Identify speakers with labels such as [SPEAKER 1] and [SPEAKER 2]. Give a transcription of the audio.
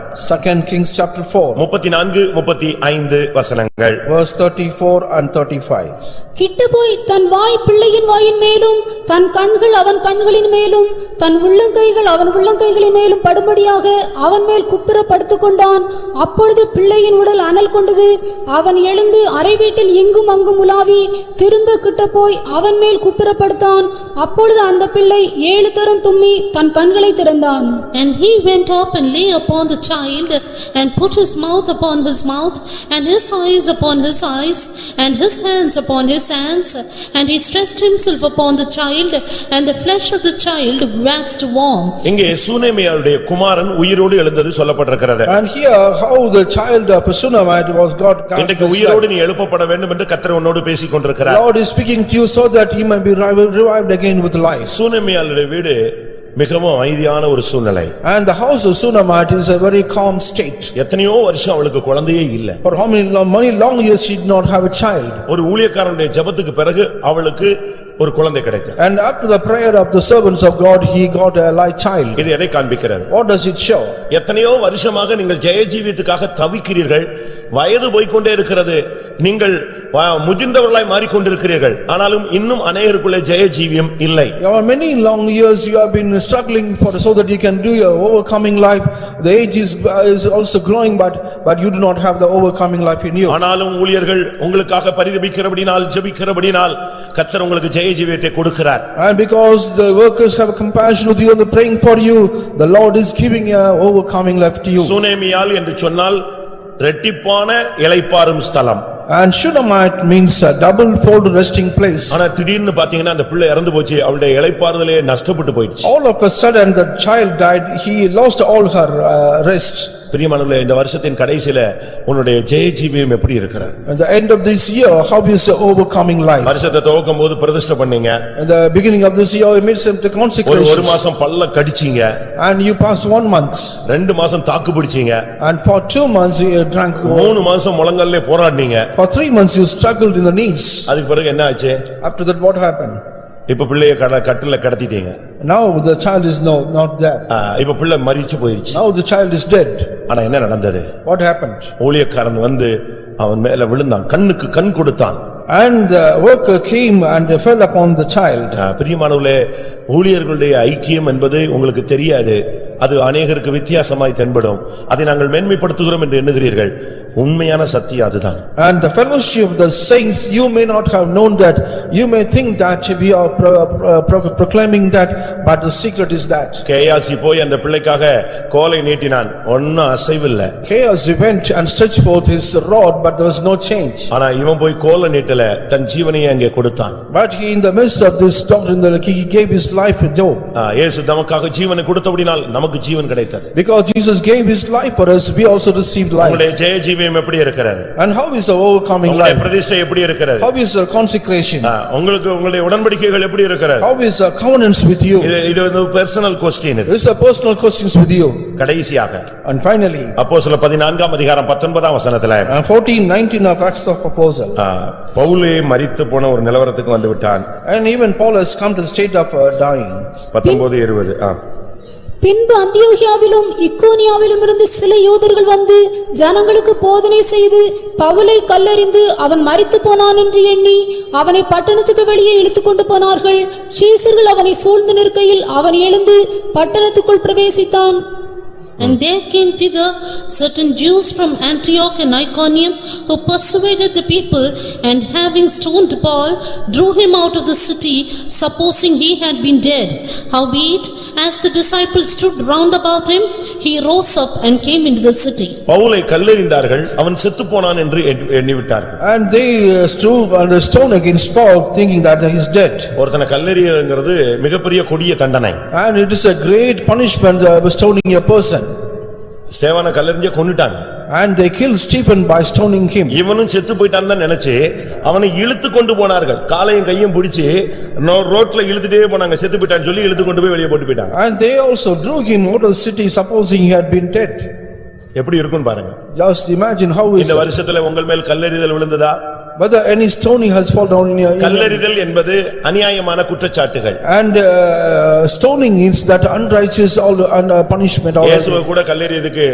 [SPEAKER 1] Second Kings chapter four,
[SPEAKER 2] முப்பத்தி நான்கு முப்பத்தி ஐந்து வசனங்கள்
[SPEAKER 1] verse thirty-four and thirty-five.
[SPEAKER 3] கிட்டுபோய் தன் வாய் பிள்ளையின் வாயின் மேலும் தன் கண்கள் அவன் கண்களின் மேலும் தன் உள்ளங்கைகள் அவன் உள்ளங்கைகளின் மேலும் படும்படியாக அவன் மேல் குப்புற படுத்துக் கொண்டான் அப்பொழுது பிள்ளையின் உடல் அனல் கொண்டது அவன் எழுந்து அறை வீட்டில் இங்கும் அங்கும் உலாவி திரும்ப கிட்ட போய் அவன் மேல் குப்புற படுத்தான் அப்பொழுது அந்த பிள்ளை ஏழு தரம் தும்மி தன் கண்களை திறந்தான்
[SPEAKER 4] And he went up and lay upon the child, and put his mouth upon his mouth, and his eyes upon his eyes, and his hands upon his hands. And he stretched himself upon the child, and the flesh of the child waxed warm.
[SPEAKER 2] இங்கே சூனேமியாருடைய குமாரன் உயிரோடு எழுந்தது சொல்லப்பட்டிருக்கிறது
[SPEAKER 1] And here how the child of Sunamite was God.
[SPEAKER 2] இன்றைக்கு உயிரோடு நீ எழுப்பப்பட வேண்டும் என்று கத்தர் உன்னோடு பேசிக் கொண்டிருக்கிறார்
[SPEAKER 1] Lord is speaking to you so that he may be revi- revived again with life.
[SPEAKER 2] சூனேமியாருடைய வீடு மிகவும் அமைதியான ஒரு சூழ்நிலை
[SPEAKER 1] And the house of Sunamite is a very calm state.
[SPEAKER 2] எத்தனையோ வருஷம் அவளுக்கு குழந்தையே இல்ல
[SPEAKER 1] For how many, lo- many long years she did not have a child.
[SPEAKER 2] ஒரு ஊழியக்காரனுடைய ஜெபத்துக்கு பிறகு அவளுக்கு ஒரு குழந்தை கிடைத்தது
[SPEAKER 1] And after the prayer of the servants of God, he got a light child.
[SPEAKER 2] இது எதை காண்பிக்கிறது
[SPEAKER 1] What does it show?
[SPEAKER 2] எத்தனையோ வருஷமாக நீங்கள் ஜெயஜீவித்துக்காக தவிக்கிறீர்கள் வயது போய்க்கொண்டே இருக்கிறது நீங்கள் வ- முதிர்ந்தவர்களாய் மாறிக்கொண்டிருக்கிறீர்கள் ஆனாலும் இன்னும் அநேகருக்குள்ளே ஜெயஜீவியம் இல்லை
[SPEAKER 1] For many long years you have been struggling for, so that you can do your overcoming life. The age is is also growing, but but you do not have the overcoming life in you.
[SPEAKER 2] ஆனாலும் ஊழியர்கள் உங்களுக்காக பரிதபிக்கிறபடினால் ஜெபிக்கிறபடினால் கத்தர் உங்களுக்கு ஜெயஜீவியத்தை கொடுக்கிறார்
[SPEAKER 1] And because the workers have compassion with you and they're praying for you, the Lord is giving a overcoming life to you.
[SPEAKER 2] சுனேமியால் என்று சொன்னால் ரெட்டிப்பான இளைப்பாறும் ஸ்தலம்
[SPEAKER 1] And Shunammite means a double fold resting place.
[SPEAKER 2] ஆனா திடீர்னு பாத்தீங்கன்னா அந்த பிள்ளை இறந்து போச்சு அவளுடைய இளைப்பாறுதலே நஷ்டப்பட்டு போயிடுச்சு
[SPEAKER 1] All of a sudden, the child died, he lost all her uh, rest.
[SPEAKER 2] பிரியமானவர்களே இந்த வருஷத்தின் கடைசில உன்னுடைய ஜெயஜீவியம் எப்படி இருக்கிறது
[SPEAKER 1] At the end of this year, how is the overcoming life?
[SPEAKER 2] வருஷத்தை துவக்கும் போது பிரதிஷ்டை பண்ணீங்க
[SPEAKER 1] At the beginning of this year, you made some
[SPEAKER 2] ஒரு ஒரு
[SPEAKER 1] consecrations.
[SPEAKER 2] மாசம் பல்ல கடிச்சீங்க
[SPEAKER 1] And you passed one month.
[SPEAKER 2] ரெண்டு மாசம் தாக்கு பிடிச்சீங்க
[SPEAKER 1] And for two months, you drank.
[SPEAKER 2] மூணு மாசம் முழங்கல்ல போராடினீங்க
[SPEAKER 1] For three months, you struggled in the knees.
[SPEAKER 2] அதுக்கு பிறகு என்ன ஆச்சு
[SPEAKER 1] After that, what happened?
[SPEAKER 2] இப்ப பிள்ளைய கட- கட்டில கடத்திட்டீங்க
[SPEAKER 1] Now, the child is no, not there.
[SPEAKER 2] ஆ, இப்ப பிள்ளை மறிச்சு போயிருச்சு
[SPEAKER 1] Now, the child is dead.
[SPEAKER 2] ஆனா என்ன நடந்தது
[SPEAKER 1] What happened?
[SPEAKER 2] ஊழியக்காரன் வந்து அவன் மேல விழுந்தான் கண்ணுக்கு கண் கொடுத்தான்
[SPEAKER 1] And the worker came and fell upon the child.
[SPEAKER 2] ஆ, பிரியமானவர்களே ஊழியர்களுடைய ஐக்கியம் என்பது உங்களுக்கு தெரியாது அது அநேகருக்கு வித்தியாசமாய் தென்படும் அதை நாங்கள் மேன்மைப்படுத்துகிறோம் என்று எண்ணுகிறீர்கள் உண்மையான சத்தியம் அதுதான்
[SPEAKER 1] And the fellowship of the saints, you may not have known that, you may think that we are pro- pro- proclaiming that, but the secret is that.
[SPEAKER 2] Gehazi போய் அந்த பிள்ளைக்காக கோலை நீட்டினான் ஒன்னும் அசைவில்ல
[SPEAKER 1] Chaos went and stretched forth his rod, but there was no change.
[SPEAKER 2] ஆனா இவன் போய் கோலை நீட்டல தன் ஜீவனையே அங்கே கொடுத்தான்
[SPEAKER 1] But he, in the midst of this doctrine, the- he gave his life for Job.
[SPEAKER 2] ஆ, இயேசு தமக்காக ஜீவனை கொடுத்தபடினால் நமக்கு ஜீவன் கிடைத்தது
[SPEAKER 1] Because Jesus gave his life for us, we also received life.
[SPEAKER 2] உங்களுடைய ஜெய ஜீவியம் எப்படி இருக்கிறது
[SPEAKER 1] And how is our overcoming
[SPEAKER 2] உங்களுடைய
[SPEAKER 1] life?
[SPEAKER 2] பிரதிஷ்டை எப்படி இருக்கிறது
[SPEAKER 1] How is our consecration?
[SPEAKER 2] ஆ, உங்களுக்கு உங்களுடைய உடன்படிக்கைகள் எப்படி இருக்கிறது
[SPEAKER 1] How is our covenants with you?
[SPEAKER 2] இது இது வந்து பெர்சனல் கொஸ்டின் இது
[SPEAKER 1] These are personal questions with you.
[SPEAKER 2] கடைசியாக
[SPEAKER 1] And finally,
[SPEAKER 2] அப்போஸ்தல பதினான்காம் அதிகாரம் பத்தொன்பதாம் வசனத்துல
[SPEAKER 1] and fourteen nineteen of Acts of Apostle.
[SPEAKER 2] ஆ, பவுலே மரித்து போன ஒரு நிலவரத்துக்கு வந்து விட்டான்
[SPEAKER 1] And even Paul has come to the state of uh, dying.
[SPEAKER 2] பத்தொன்பது இருபது ஆ.
[SPEAKER 3] பின்பு அந்தியோகியாவிலும் இக்கோனியாவிலும் இருந்து சில யூதர்கள் வந்து ஜனங்களுக்கு போதனை செய்து பவுலை கல்லறிந்து அவன் மரித்துப் போனான் என்று எண்ணி அவனை பட்டணத்துக்கு வெளியே இழுத்துக்கொண்டு போனார்கள் சீசர்கள் அவனை சூழ்ந்து நிற்கையில் அவன் எழுந்து பட்டணத்துக்குள் பிரவேசித்தான்
[SPEAKER 4] And there came thither certain Jews from Antioch and Iconium who persuaded the people and having stoned Paul, drew him out of the city, supposing he had been dead. Howbeit, as the disciples stood round about him, he rose up and came into the city.
[SPEAKER 2] பவுலை கல்லெறிந்தார்கள் அவன் செத்துப் போனான் என்று எண்ணி- எண்ணிவிட்டார்கள்
[SPEAKER 1] And they uh, threw on the stone against Paul thinking that he is dead.
[SPEAKER 2] ஒருத்தனை கல்லெறியங்கிறது மிகப்பெரிய கொடிய தண்டனை
[SPEAKER 1] And it is a great punishment uh, stoning a person.
[SPEAKER 2] ஸ்தேவானை கல்லெறிஞ்ச கொன்னுட்டாங்க
[SPEAKER 1] And they killed Stephen by stoning him.
[SPEAKER 2] இவனும் செத்து போயிட்டான் தான் நினைச்சு அவனை இழுத்து கொண்டு போனார்கள் காலையும் கையும் பிடிச்சு நோ- ரோட்ல இழுத்துட்டே போனாங்க செத்து போயிட்டான்னு சொல்லி இழுத்து கொண்டு போய் வெளியே போட்டு போயிட்டாங்க
[SPEAKER 1] And they also drew him out of the city supposing he had been dead.
[SPEAKER 2] எப்படி இருக்கும்னு பாருங்க
[SPEAKER 1] Just imagine how is,
[SPEAKER 2] இந்த வருஷத்துல உங்கள் மேல் கல்லெறிதல் விழுந்ததா
[SPEAKER 1] whether any stoning has fallen down in your.
[SPEAKER 2] கல்லெறிதல் என்பது அநியாயமான குற்றச்சாட்டுகள்
[SPEAKER 1] And uh, stoning is that unrighteous all- and, uh, punishment. all-
[SPEAKER 2] இயேசுவை கூட கல்லெறியதுக்கு